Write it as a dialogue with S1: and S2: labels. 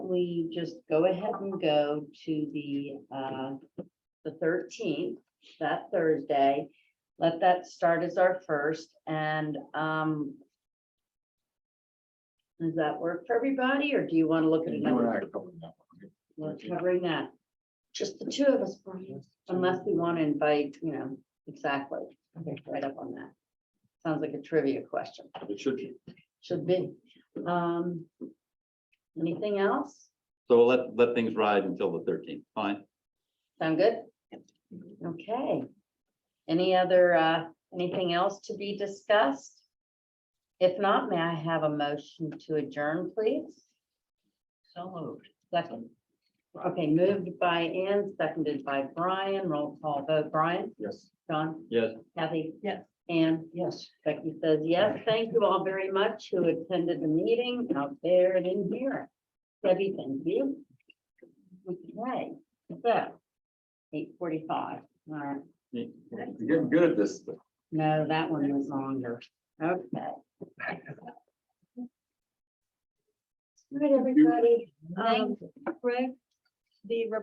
S1: we just go ahead and go to the, uh, the thirteenth, that Thursday. Let that start as our first and, um, does that work for everybody or do you want to look at
S2: You and I
S1: another?
S2: are going that way.
S1: We're covering that. Just the two of us, Brian, unless we want to invite, you know, exactly, right up on that. Sounds like a trivia question.
S2: It should be.
S1: Should be. Um, anything else?
S3: So we'll let, let things ride until the thirteenth, fine.
S1: Sound good? Okay. Any other, uh, anything else to be discussed? If not, may I have a motion to adjourn, please? So moved. Second. Okay, moved by Ann, seconded by Brian. Roll call vote. Brian?
S2: Yes.
S1: John?
S3: Yes.
S1: Kathy?
S4: Yes.
S1: Ann? Yes. Becky says yes. Thank you all very much who attended the meeting out there and in here. Debbie, thank you. Okay, so eight forty-five, all right.
S3: Yeah.
S2: You're getting good at this.
S1: No, that one was longer. Okay. All right, everybody. Um,
S4: Greg, the